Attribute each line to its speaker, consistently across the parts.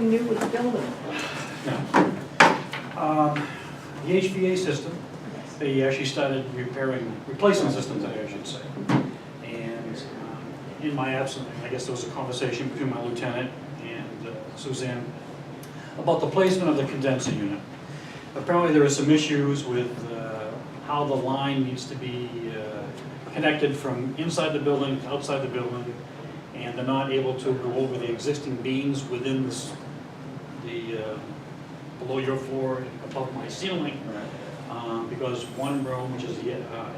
Speaker 1: new with the building.
Speaker 2: Um, The HVA system, they actually started repairing, replacing the system today, I should say. And um, in my absence, I guess there was a conversation between my lieutenant and uh, Suzanne about the placement of the condenser unit. Apparently, there are some issues with uh, how the line needs to be uh, connected from inside the building to outside the building, and they're not able to go over the existing beams within this- the, uh, below your floor and above my ceiling, um, because one room, which is the uh,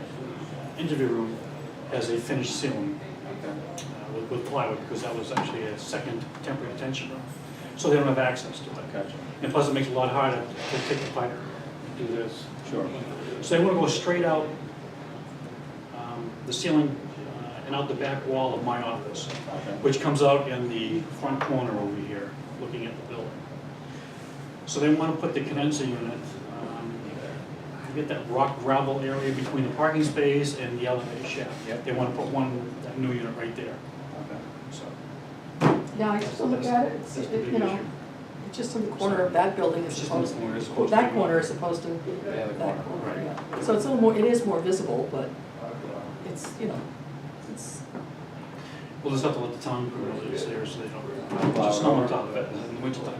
Speaker 2: interview room, has a finished ceiling uh, with- with plywood, because that was actually a second temporary detention room. So they don't have access to it.
Speaker 3: Gotcha,
Speaker 2: And plus, it makes it a lot harder to take the pipe and do this.
Speaker 3: sure.
Speaker 2: So they want to go straight out um, the ceiling uh, and out the back wall of my office,
Speaker 3: Okay.
Speaker 2: which comes out in the front corner over here, looking at the building. So they want to put the condenser unit, um, you get that rock gravel area between the parking space and the elevator shaft.
Speaker 3: Yep.
Speaker 2: They want to put one, that new unit right there,
Speaker 3: Okay.
Speaker 2: so.
Speaker 1: Now, I just look at it, it's,
Speaker 2: That's the big
Speaker 1: you know,
Speaker 2: issue.
Speaker 1: it's just in the corner of that building
Speaker 2: It's
Speaker 1: as
Speaker 2: just in the
Speaker 1: opposed,
Speaker 2: corner, it's supposed to
Speaker 1: that
Speaker 2: be-
Speaker 1: corner is opposed to
Speaker 3: Yeah, the
Speaker 1: that
Speaker 3: corner.
Speaker 1: corner,
Speaker 2: Right.
Speaker 1: yeah. So it's a little more, it is more visible, but it's, you know, it's,
Speaker 2: We'll just have to let the town crew know it's there, so they don't,
Speaker 3: Plow it
Speaker 2: just snow on
Speaker 3: over.
Speaker 2: top of it in the wintertime.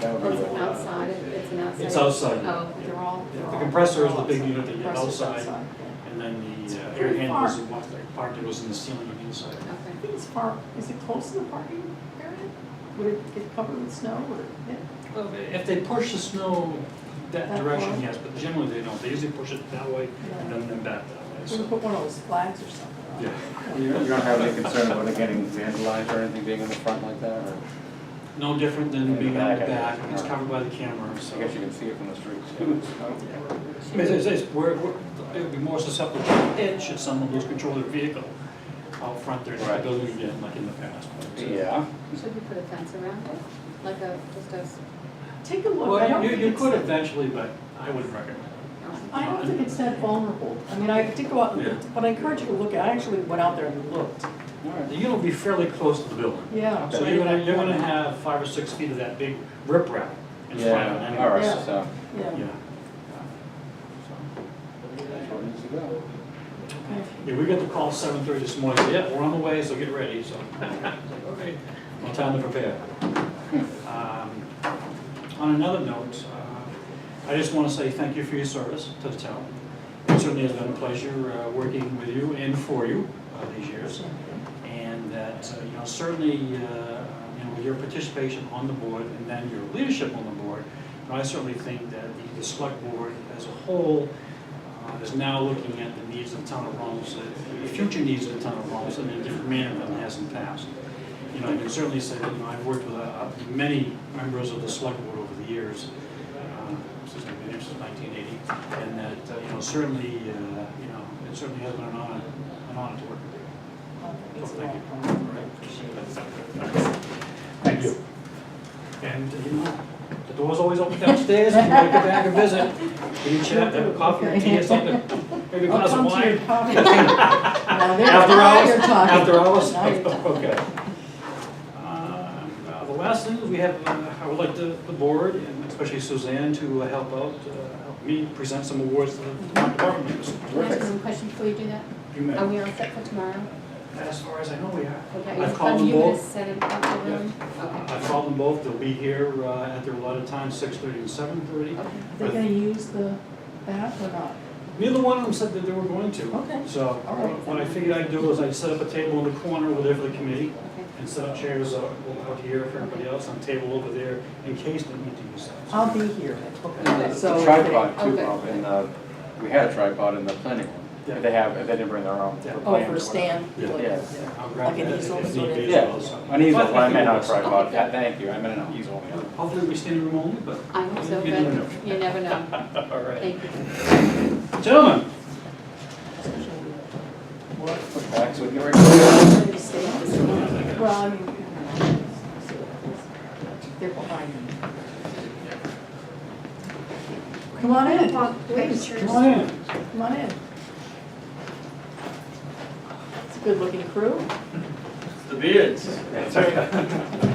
Speaker 3: That would
Speaker 4: Oh,
Speaker 3: be
Speaker 4: it's an
Speaker 3: good.
Speaker 4: outside, it's an outside.
Speaker 2: It's outside.
Speaker 4: Oh, they're all, they're
Speaker 2: The
Speaker 4: all.
Speaker 2: compressor is the big unit that you have
Speaker 1: Compressor's
Speaker 2: outside,
Speaker 1: outside,
Speaker 2: and then the uh,
Speaker 1: It's
Speaker 2: air
Speaker 1: pretty
Speaker 2: handlers
Speaker 1: far.
Speaker 2: and what they parked, it was in the ceiling and inside.
Speaker 4: Okay,
Speaker 1: I think it's far, is it close to the parking area? Would it get covered with snow or, yeah?
Speaker 2: Well, If they push the snow that
Speaker 1: That
Speaker 2: direction,
Speaker 1: far?
Speaker 2: yes, but generally they don't, they usually push it that way and then then back that way,
Speaker 1: Should we
Speaker 2: so.
Speaker 1: put one of those flags or something? on it?
Speaker 3: You you don't have any concern about it getting vandalized or anything being in the front like that, or?
Speaker 2: No different
Speaker 3: In
Speaker 2: than
Speaker 3: the
Speaker 2: being on the
Speaker 3: back, I
Speaker 2: back,
Speaker 3: guess.
Speaker 2: and it's covered by the camera,
Speaker 3: I
Speaker 2: so.
Speaker 3: guess you can see it from the street too. so.
Speaker 2: I mean, it's, it's, we're, we're- it would be more susceptible to hit should someone lose control of their vehicle out front there in the
Speaker 3: Right.
Speaker 2: building again, like in the past.
Speaker 3: Yeah.
Speaker 4: should we put a fence around it, like a, just a, s-
Speaker 1: Take a look, I
Speaker 2: Well,
Speaker 1: don't
Speaker 2: you,
Speaker 1: think
Speaker 2: you
Speaker 1: it's
Speaker 2: could
Speaker 1: that-
Speaker 2: eventually, but I wouldn't recommend it.
Speaker 4: um,
Speaker 1: I don't think it's that vulnerable. I mean, I did go out, and
Speaker 2: Yeah.
Speaker 1: looked, but I encourage you to look at, it. I actually went out there and looked.
Speaker 3: All right.
Speaker 2: The unit will be fairly close to the building.
Speaker 1: Yeah.
Speaker 2: So you're gonna, you're gonna have five or six feet of that big riprap in front of it
Speaker 3: Yeah, all
Speaker 2: anyway.
Speaker 3: right,
Speaker 1: Yeah.
Speaker 3: so.
Speaker 1: Yeah.
Speaker 2: Yeah.
Speaker 3: that's where it needs to go.
Speaker 1: Okay.
Speaker 2: Yeah, we got the call seven thirty this morning, yeah, we're on the way, so get ready, so. Okay, well, time to prepare. Um, On another note, uh, I just want to say thank you for your service to the town. It certainly has been a pleasure uh, working with you and for you uh, these years. And that, uh, you know, certainly, uh, you know, with your participation on the board and then your leadership on the board, you know, I certainly think that the- the select board as a whole uh, is now looking at the needs of the town of Rollinsford, the future needs of the town of Rollinsford in a different manner than it has in the past. You know, I can certainly say that, you know, I've worked with uh, many members of the select board over the years, uh, since I've been here since 1980, and that, uh, you know, certainly, uh, you know, it certainly has been an honor, an honor to work with you.
Speaker 1: It's a
Speaker 2: Thank you.
Speaker 1: lot of fun.
Speaker 2: Thank you. And, you know, the door's always open downstairs, if you want to go back and visit, we can chat, have a coffee or tea or something, maybe a
Speaker 1: I'll
Speaker 2: glass of
Speaker 1: come to your
Speaker 2: wine.
Speaker 1: coffee. Now, there-
Speaker 2: After
Speaker 1: now
Speaker 2: hours?
Speaker 1: you're talking.
Speaker 2: After hours?
Speaker 1: Now you're talking.
Speaker 2: Okay. Um, uh, The last thing is we have, uh, I would like the, the board, and especially Suzanne, to uh, help out, uh, help me present some awards to the department members.
Speaker 4: Can I ask one question before you do that?
Speaker 2: You may.
Speaker 4: Are we all set for tomorrow?
Speaker 2: As far as I know, we are.
Speaker 4: Okay,
Speaker 2: I've
Speaker 4: it's
Speaker 2: called
Speaker 4: fun.
Speaker 2: them
Speaker 4: you gonna
Speaker 2: both.
Speaker 4: set it up for them?
Speaker 2: I called them both, they'll be here uh, at their allotted time, six thirty and seven thirty.
Speaker 4: Okay, okay.
Speaker 1: Are they gonna use the bath or not?
Speaker 2: Neither one of them said that they were going to.
Speaker 1: Okay.
Speaker 2: So
Speaker 1: All right.
Speaker 2: what I figured I'd do is I'd set up a table in the corner over there for the committee
Speaker 4: Okay.
Speaker 2: and set up chairs out out here for everybody else and a table over there in case they need to use that.
Speaker 1: I'll be here.
Speaker 3: It's
Speaker 1: So
Speaker 3: a
Speaker 1: if
Speaker 3: tripod
Speaker 1: they-
Speaker 3: too,
Speaker 4: Okay.
Speaker 3: Bob, and, uh, we had a tripod in the planning room.
Speaker 2: Yeah.
Speaker 3: They have, they didn't bring their own.
Speaker 2: Yeah.
Speaker 1: Oh,
Speaker 3: plans or
Speaker 1: for a stand?
Speaker 2: Yeah.
Speaker 1: like-
Speaker 3: Yes.
Speaker 1: yeah.
Speaker 2: I'll grab
Speaker 1: Like an
Speaker 2: that
Speaker 1: easel
Speaker 2: if
Speaker 1: sort
Speaker 2: need
Speaker 1: of-
Speaker 2: be
Speaker 3: Yeah,
Speaker 2: as well. so.
Speaker 3: an easel,
Speaker 2: But I think
Speaker 3: I meant
Speaker 2: we'll-
Speaker 3: not a tripod, Yeah, thank you, I meant an easel.
Speaker 2: Hopefully we stand in room only, but.
Speaker 4: I hope so,
Speaker 2: You never know.
Speaker 4: but you never know.
Speaker 2: All right.
Speaker 4: Thank you.
Speaker 2: Gentlemen,
Speaker 1: What?
Speaker 3: Back, so we can record.
Speaker 1: Well, I mean. They're behind me. Come on in, please,
Speaker 2: come on in.
Speaker 1: come on in. It's a good looking crew.
Speaker 5: The beards.
Speaker 2: That's okay.